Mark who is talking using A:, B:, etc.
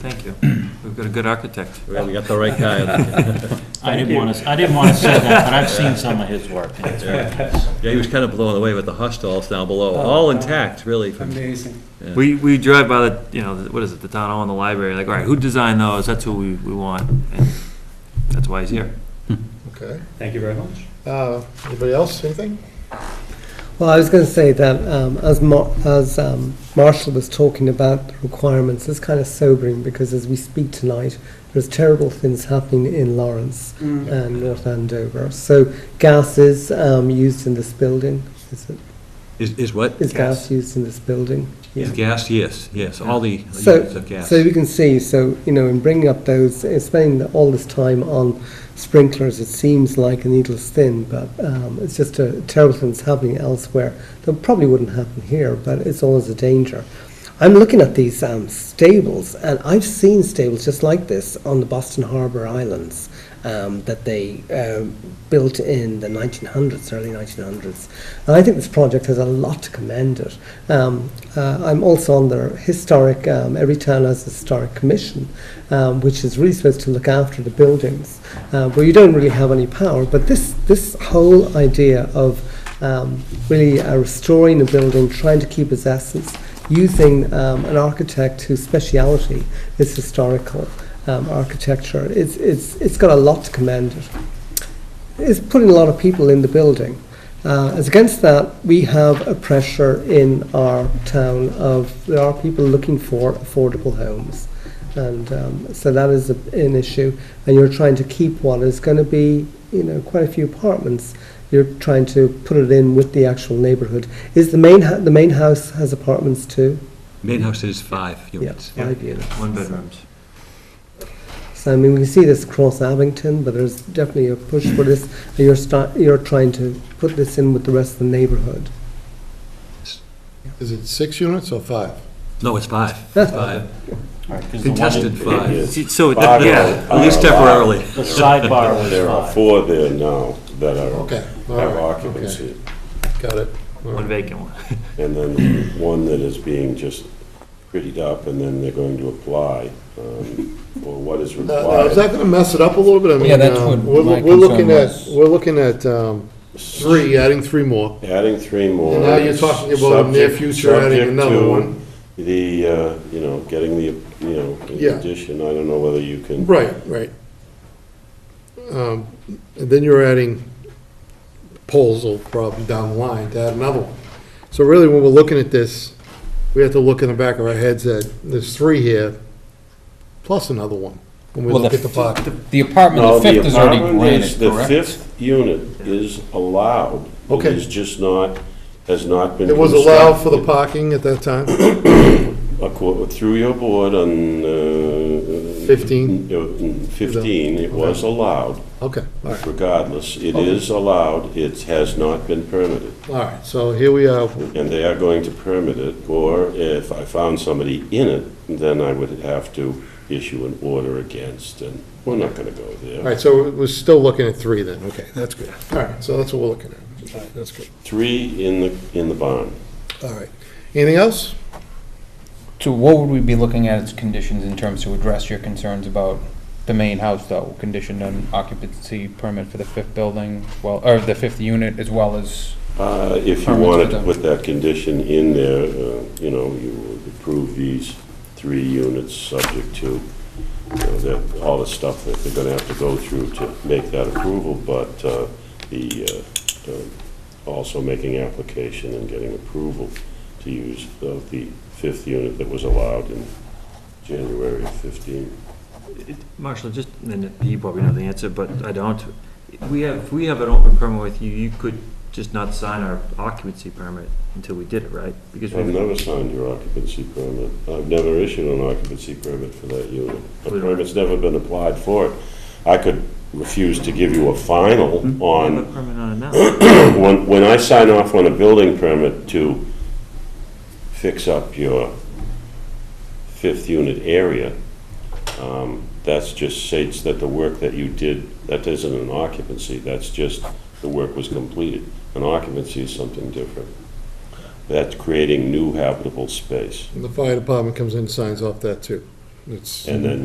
A: Thank you. We've got a good architect.
B: Yeah, We got the right guy.
C: I didn't want to, I didn't want to say that, but I've seen some of his work. and it's very nice.
B: Yeah, he was kind of blown away with the hostels down below, all intact, really. from-
D: Amazing.
A: We, we drive by the, you know, what is it, the town hall and the library, like, all right, who designed those? That's who we, we want. And That's why he's here.
E: Okay.
D: Thank you very much.
E: Uh, Anybody else, anything?
F: Well, I was going to say that um, as Mar- as um, Marshall was talking about the requirements, it's kind of sobering because as we speak tonight, there's terrible things happening in Lawrence and North Andover. So gas is um, used in this building. Is, it,
B: Is, is what?
F: is gas. used in this building?
B: Is gas, yes, yes, all the
F: So,
B: units of gas.
F: so you can see, so, you know, in bringing up those, uh, spending all this time on sprinklers, it seems like a needle's thin, but um, it's just a terrible things happening elsewhere that probably wouldn't happen here, but it's always a danger. I'm looking at these um, stables, and I've seen stables just like this on the Boston Harbor Islands um, that they um, built in the 1900s, early 1900s. And I think this project has a lot to commend it. Um, uh, I'm also on their historic, um, every town has a historic commission, um, which is really supposed to look after the buildings, uh, where you don't really have any power. But this, this whole idea of um, really uh, restoring a building, trying to keep its essence, using um, an architect whose speciality is historical um, architecture. It's, it's, it's got a lot to commend it. It's putting a lot of people in the building. Uh, as against that, we have a pressure in our town of there are people looking for affordable homes. And um, so that is a, an issue. And you're trying to keep what is going to be, you know, quite a few apartments. You're trying to put it in with the actual neighbourhood. Is the main ha- the main house has apartments too?
B: Main house is five
F: Yeah,
B: units.
F: five units.
A: One bedrooms.
F: So I mean, we can see this across Abington, but there's definitely a push for this. And you're start, you're trying to put this in with the rest of the neighbourhood.
E: Is it six units or five?
B: No, it's five, it's five.
C: All right, 'cause the one
B: Contested
C: in-
B: five,
A: So,
G: Five
A: yeah,
G: are-
B: at
F: Oh.
B: least
G: are
B: temporarily.
C: The sidebar
G: allowed.
C: was
G: There are
C: five.
G: four there now that are,
E: Okay. all
G: have
E: right,
G: occupancy.
E: okay, Got it. All
A: one
E: right.
A: vacant one.
G: And then one that is being just prettied up, and then they're going to apply, um, or what is
E: Now- Uh, now, Is that
G: required.
E: going to mess it up a little bit? I mean,
H: that's
E: um,
H: what
E: we're-
H: my
E: We're looking
H: concern
E: at,
H: was.
E: we're looking at um, three, adding three more.
G: Adding three more.
E: Now you're talking about in the near
G: subject-
E: future adding
G: subject
E: another
G: to
E: one.
G: The, uh, you know, getting the, you know,
E: Yeah.
G: the addition, I don't know whether you can.
E: Right, right. Um, And then you're adding poles will probably down the line to add another one. So really, when we're looking at this, we have to look in the back of our heads that there's three here, plus another one, when we
H: Well,
E: look
H: the
E: at the park.
H: The apartment,
G: No,
H: the fifth is already
G: apartment is-
H: granted,
G: The
H: correct?
G: fifth unit is allowed.
E: Okay.
G: It is just not, has not been.
E: It was allowed for the
G: constructed.
E: parking at that time?
G: Acco- Through your board on. uh,
E: 15?
G: uh, in 15, it was allowed,
E: Okay, all right,
G: regardless. It is allowed, it has not been permitted.
E: all right, so here we are,
G: And they are going to permit it, or if I found somebody in it, then I would have to issue an order against, and we're not going to go
E: all
G: there.
E: right, so we're still looking at three then, okay, that's good. All right, so that's what we're looking at, all right, that's good,
G: Three in the, in the barn.
E: all right. Anything else?
H: So what would we be looking at as conditions in terms to address your concerns about the main house though? Conditioned on occupancy permit for the fifth building, well, or the fifth unit as well as,
G: Uh, If you
H: Permits
G: wanted
H: for
G: to
H: them.
G: put that condition in there, uh, you know, you would approve these three units subject to, you know, that, all the stuff that they're gonna have to go through to make that approval, but uh, the, uh, uh, also making application and getting approval to use of the fifth unit that was allowed in January of 15.
A: Marshall, just, and you probably know the answer, but I don't. We have, if we have an open permit with you, you could just not sign our occupancy permit until we did it, right? Because
G: I've
A: we've
G: never signed your occupancy permit. I've never issued an occupancy permit for that unit. A
A: We don't-
G: permit's never been applied for it. I could refuse to give you a final
A: have a
G: on,
A: permit on it now.
G: when, when I sign off on a building permit to fix up your fifth unit area, um, that's just states that the work that you did, that isn't an occupancy, that's just the work was completed. An occupancy is something different. That's creating new habitable space.
E: And the fire department comes in and signs off that too.
I: It's.
E: And then